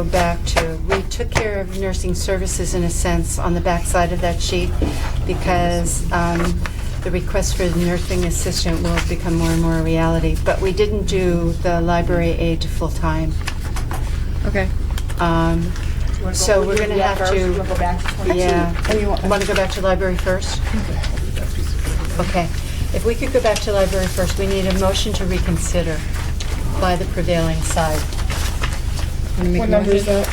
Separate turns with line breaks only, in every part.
Go back to, we took care of nursing services in a sense on the backside of that sheet because um, the request for the nursing assistant will become more and more a reality. But we didn't do the library aid to full-time.
Okay.
Um,
You wanna go-
So
we
we're
can
gonna
do that
have
first?
to-
You wanna go back to 22? oh,
Yeah.
And you want,
Want to go back to library first? Okay. If we could go back to library first, we need a motion to reconsider by the prevailing side.
wanna make a
What number is
motion?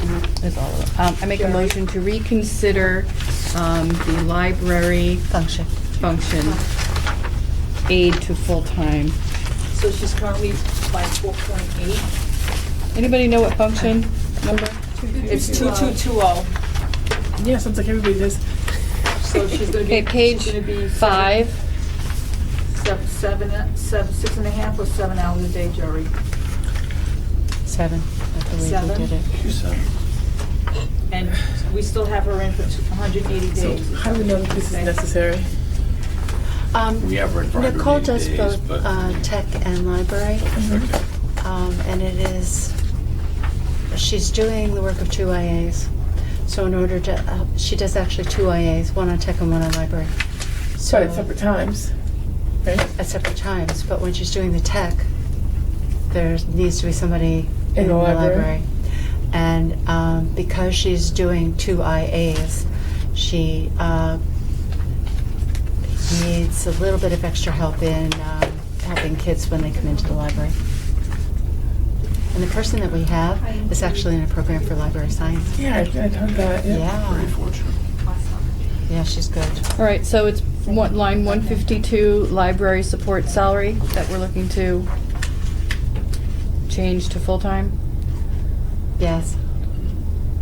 that?
That's all of them. Um, I make a motion to reconsider, um, the library
Function.
function aid to full-time.
So she's currently by 4.8?
Anybody know what function number?
It's 2220.
Yeah, sounds like everybody does.
So she's gonna be.
Okay, page
she's gonna be seven-
five.
sev- Seven, uh, sev- six and a half or seven hours a day, Jerry?
Seven. I believe we
Seven.
did it.
uh,
And we still have her in for two- 180
So
days.
how do we know that this is necessary?
Um,
We have run for
Nicole
180
does
days,
both
but- Mm-hmm.
uh, tech and library, um, and it is, she's doing the work of two IAs. So in order to, uh, she does actually two IAs, one on tech and one on library. So
But at separate times, right?
At separate times, but when she's doing the tech, there needs to be somebody
In
in
the
the
library.
library. And um, because she's doing two IAs, she uh, needs a little bit of extra help in um, helping kids when they come into the library. And the person that we have is actually in a program for library science.
Yeah, I, I heard that. Yeah.
Yeah,
Pretty fortunate.
yeah, she's good.
All right, so it's one, line one fifty-two, library support salary that we're looking to change to full-time?
Yes,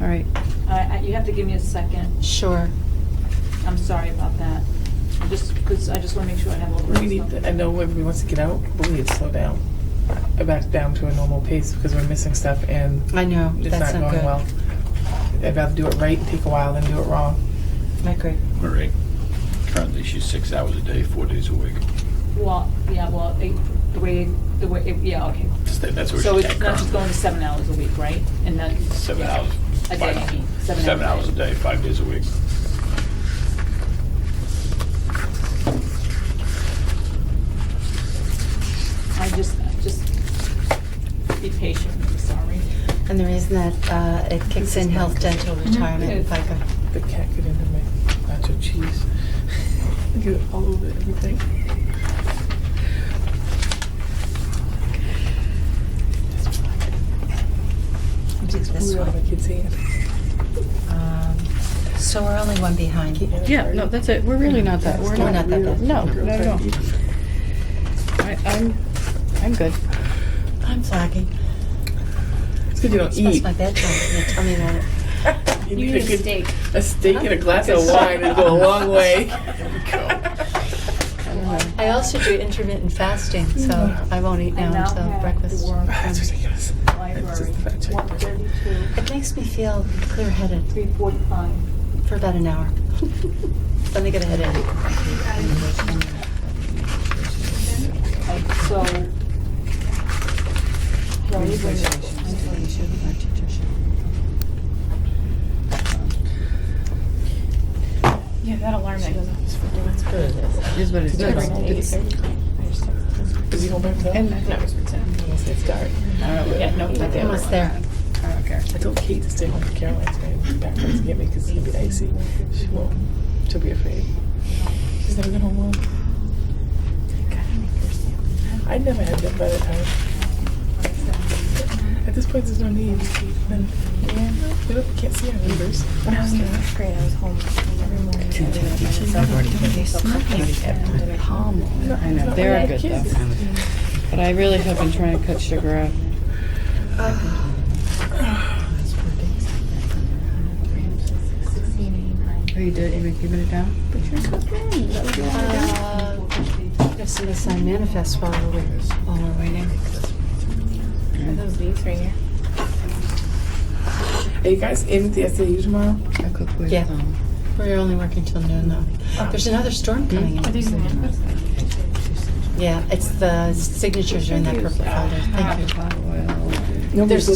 All right.
I- I- You have to give me a second.
sure.
I'm sorry about that. I'm Just, because I just want to make sure I have all the.
We need.
stuff.
I know everybody wants to get out, but we need to slow down, Uh, back down to a normal pace because we're missing stuff and
I know,
it's
that's
not
not
going
good.
well. I'd rather do it right and take a while than do it wrong.
I agree.
All right. Currently, she's six hours a day, four days a week.
Well, yeah, well, it- the way, the way, it- yeah, okay.
Just that- That's
So
where she's
it's
at
not just going
currently.
to seven hours a week, right? And that.
Seven
yeah.
hours.
A
five-
day, I mean, seven
Seven
hours
hours
a
a day, five days a week.
I just, just be patient, I'm sorry.
And the reason that uh, it kicks in health, dental, retirement, and FICA.
The cat get into my nacho cheese. get it all over everything. It's blew out of my kid's hand.
Um, So we're only one behind.
Yeah, no, that's it. We're really not that, we're
We're
not,
not that bad.
no, no, no. I, I'm, I'm good.
I'm flagging.
It's good you don't
It's past
eat.
my bedtime. You tell me about it.
You need a steak. A steak and a glass of wine would go a long way.
Mm-hmm.
I also do intermittent fasting, so I won't eat
I
now
now
until
have
breakfast.
the work
That's
from
ridiculous. It's
library,
just a fact check.
one thirty-two,
It makes me feel clear-headed
three forty-five.
for about an hour. Then I get a headache.
So. Jerry, when-
Yeah, that alarm that goes off.
It Is what it is. It's-
Is he going back to that?
And I think it was pretend.
Yes, It's dark.
Yeah, no, not the other
Almost
one.
there.
I don't care.
I told Kate to stay home for Caroline's going to back to get me because it's going to be icy. She won't. She'll be afraid. She's never been home alone. I never had that by the time. At this point, there's no need. Then, we don't, can't see our neighbors.
When I was in the fifth grade, I was home every morning. I did it by myself. And did it.
I know, they're good though. But I really have been trying to cut sugar out. Oh, you did, you giving it down?
Uh, If somebody sign manifest while we're, while we're waiting.
Are Uh, those these right here?
Are you guys in the SAU tomorrow?
I cook with,
Yeah.
um,
We're only working till noon, though. There's another storm coming in.
these
Yeah, it's the signatures are in that purple folder. Thank you.
hot oil.
There's